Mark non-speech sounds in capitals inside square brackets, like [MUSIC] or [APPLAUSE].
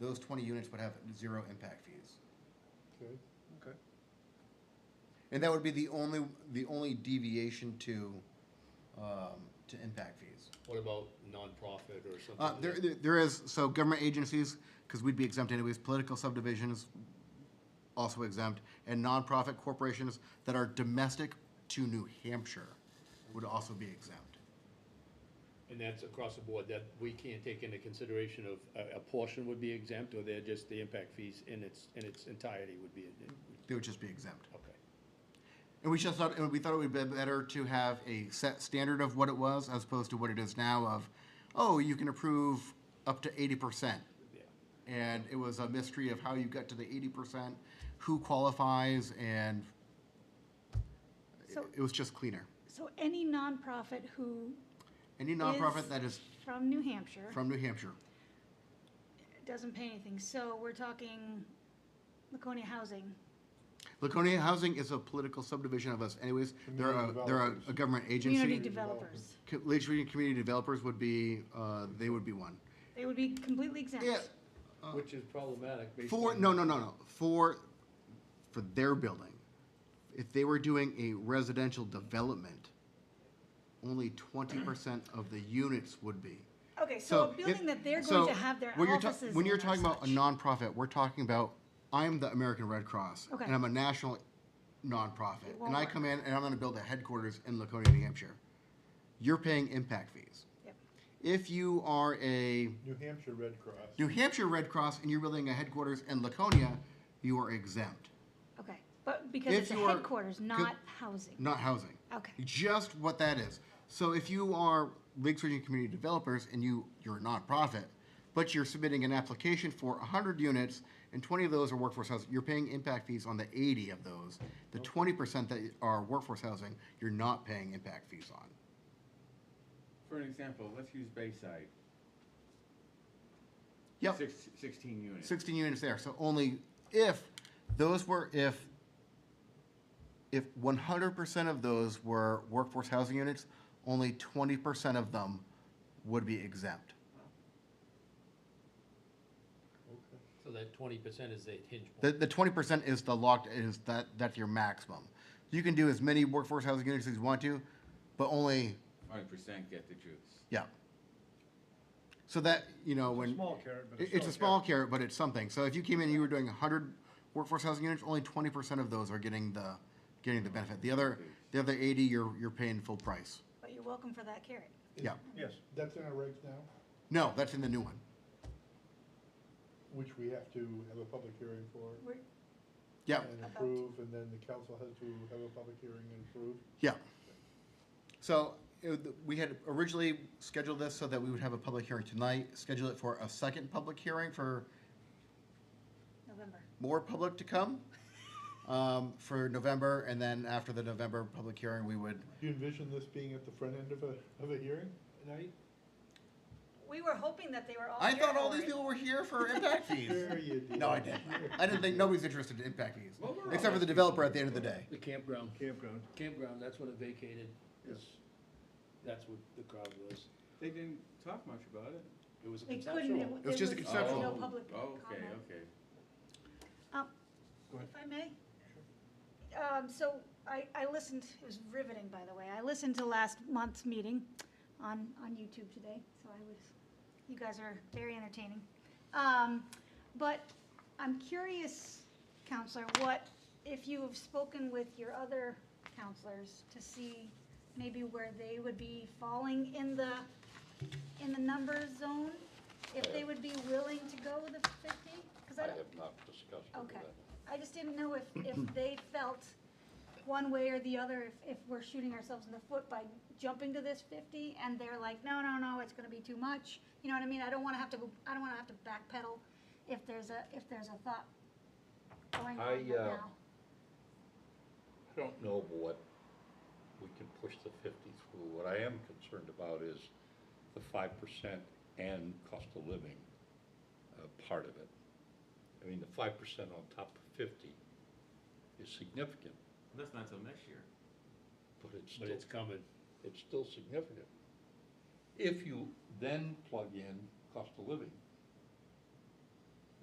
those twenty units would have zero impact fees. Okay. Okay. And that would be the only, the only deviation to, um, to impact fees. What about nonprofit or something? Uh, there, there- there is, so government agencies, because we'd be exempt anyways, political subdivisions also exempt, and nonprofit corporations that are domestic to New Hampshire would also be exempt. And that's across the board, that we can't take into consideration of, uh, a, a portion would be exempt, or they're just the impact fees in its, in its entirety would be, They would just be exempt. okay. And we just thought, and we thought it would be better to have a set standard of what it was as opposed to what it is now of, oh, you can approve up to eighty percent. Yeah. And it was a mystery of how you got to the eighty percent, who qualifies, and it- So- it was just cleaner. So any nonprofit who Any nonprofit Is- that is from New Hampshire from New Hampshire, doesn't pay anything, so we're talking Laconia Housing. Laconia Housing is a political subdivision of us anyways. They're a, Community they're a, a developers. government Community agency. developers, Co- Lakeview Community Developers would be, uh, they would be one. they would be completely exempt. Yeah, Which is problematic based For, on- Uh, no, no, no, no, for, for their building. If they were doing a residential development, only twenty percent of the units would be. Okay, so a if- building that they're so going to have their when you're ta- offices When in you're or talking about a such. nonprofit, we're talking about, I'm the American Red Cross. Okay. And I'm a national nonprofit, It and won't I work. come in and I'm gonna build a headquarters in Laconia, New Hampshire. You're paying impact fees. Yep. If you are a New Hampshire Red Cross. New Hampshire Red Cross and you're building a headquarters in Laconia, you are exempt, Okay, but because If it's a you are- headquarters, not housing. not housing. Okay, Just what that is. So if you are Lakes Region Community Developers and you, you're a nonprofit, but you're submitting an application for hundred units and twenty of those are workforce housing, you're paying impact fees on the eighty of those. The twenty percent that are workforce housing, you're not paying impact fees on. For an example, let's use Bayside. Yep, Six, sixteen units. sixteen units there. So only if, those were if, if one hundred percent of those were workforce housing units, only twenty percent of them would be exempt. So that twenty percent is the hinge The, point. the twenty percent is the locked, is that, that's your maximum. You can do as many workforce housing units as you want to, but only, Five percent get the juice. yeah. So that, you know, when. Small carrot, but It- It's a small carrot, but it's something. So if you came in and you were doing hundred workforce housing units, only twenty percent of those are getting the, getting the benefit. The other, the other eighty, you're, you're paying full price. but you're welcome for that carrot. Yeah. Yes. That's in our regs now, No, that's in the new one. which we have to have a public hearing for We're, Yeah, and About- approve, and then the council has to have a public hearing and approve. yeah. So it- we had originally scheduled this so that we would have a public hearing tonight, schedule it for a second public hearing for November. more public to come [LAUGHS] um, for November, and then after the November public hearing, we would. Do you envision this being at the front end of a, of a hearing tonight? We were hoping that they were all I here thought all for these it. people were here for impact fees. There [LAUGHS] you did. No, I didn't. I didn't think nobody's interested in impact fees, Well, we're all except for the asking developer for at the end of the day. The campground, Campground. campground, that's when it vacated, is, that's what the crowd was. They didn't talk much about it. It was a They couldn't, conceptual. it was just a there was conceptual. no Oh, public Okay, comment. okay. Go ahead. If I may? Um, so I, I listened, it was riveting, by the way. I listened to last month's meeting on, on YouTube today, so I was, you guys are very entertaining. Um, but I'm curious, counselor, what, if you have spoken with your other counselors to see maybe where they would be falling in the, in the number zone? If they would be willing to go the fifty? Uh, I Because have not discussed it with Okay. them. I just didn't know if, if they felt one way or the other, if, if we're shooting ourselves in the foot by jumping to this fifty, and they're like, no, no, no, it's gonna be too much. You know what I mean? I don't wanna have to, go. I don't wanna have to backpedal if there's a, if there's a thought going on I, right uh, now. I don't know what, we can push the fifty through. What I am concerned about is the five percent and cost of living, uh, part of it. I mean, the five percent on top of fifty is significant, That's not till next year. but it's But still, it's coming. it's still significant. If you then plug in cost of living,